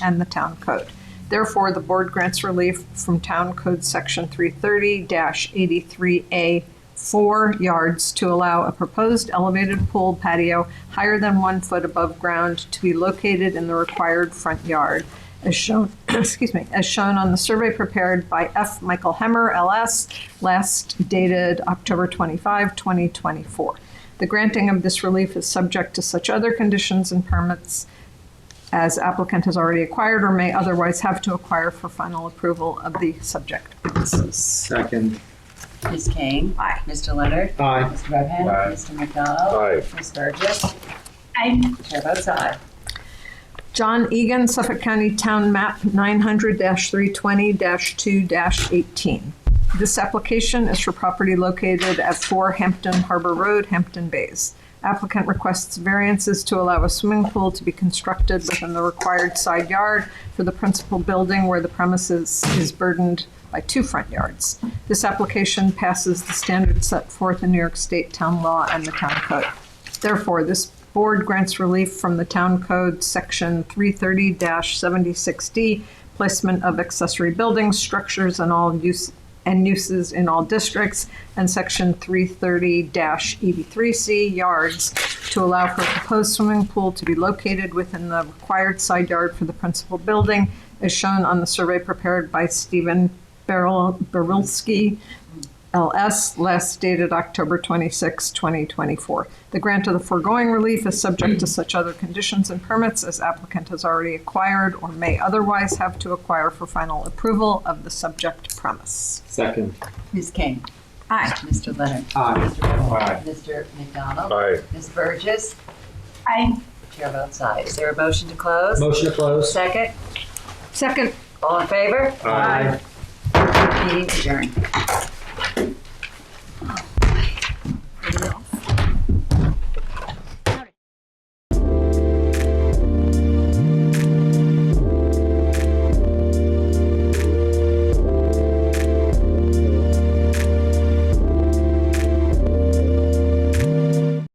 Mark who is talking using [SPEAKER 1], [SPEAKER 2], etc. [SPEAKER 1] and the town code. Therefore, the board grants relief from Town Code Section 330-83A, four yards to allow a proposed elevated pool patio higher than one foot above ground to be located in the required front yard, as shown, excuse me, as shown on the survey prepared by F. Michael Hemmer, LS, last dated October 25, 2024. The granting of this relief is subject to such other conditions and permits as applicant has already acquired or may otherwise have to acquire for final approval of the subject premises.
[SPEAKER 2] Second.
[SPEAKER 3] Ms. King.
[SPEAKER 1] Aye.
[SPEAKER 3] Mr. Leonard.
[SPEAKER 2] Aye.
[SPEAKER 3] Mr. Redhand.
[SPEAKER 2] Aye.
[SPEAKER 3] Mr. McDonald.
[SPEAKER 4] Aye.
[SPEAKER 3] Ms. Burgess. Aye. Chair votes aye.
[SPEAKER 1] John Egan, Suffolk County Town Map 900-320-2-18. This application is for property located at 4 Hampton Harbor Road, Hampton Bays. Applicant requests variances to allow a swimming pool to be constructed within the required side yard for the principal building where the premises is burdened by two front yards. This application passes the standards set forth in New York State Town Law and the Town Code. Therefore, this board grants relief from the Town Code, Section 330-76D, placement of accessory buildings, structures, and all use, and uses in all districts, and Section 330-83C, yards, to allow for a proposed swimming pool to be located within the required side yard for the principal building, as shown on the survey prepared by Stephen Beryl- Berilski, LS, last dated October 26, 2024. The grant of the foregoing relief is subject to such other conditions and permits as applicant has already acquired or may otherwise have to acquire for final approval of the subject premise.
[SPEAKER 2] Second.
[SPEAKER 3] Ms. King.
[SPEAKER 1] Aye.
[SPEAKER 3] Mr. Leonard.
[SPEAKER 2] Aye.
[SPEAKER 3] Mr. Redhand.
[SPEAKER 2] Aye.
[SPEAKER 3] Mr. McDonald.
[SPEAKER 4] Aye.
[SPEAKER 3] Ms. Burgess. Aye. Chair votes aye. Is there a motion to close?
[SPEAKER 2] Motion to close.
[SPEAKER 3] Second.
[SPEAKER 1] Second.
[SPEAKER 3] All in favor?
[SPEAKER 4] Aye.
[SPEAKER 3] Meeting adjourned.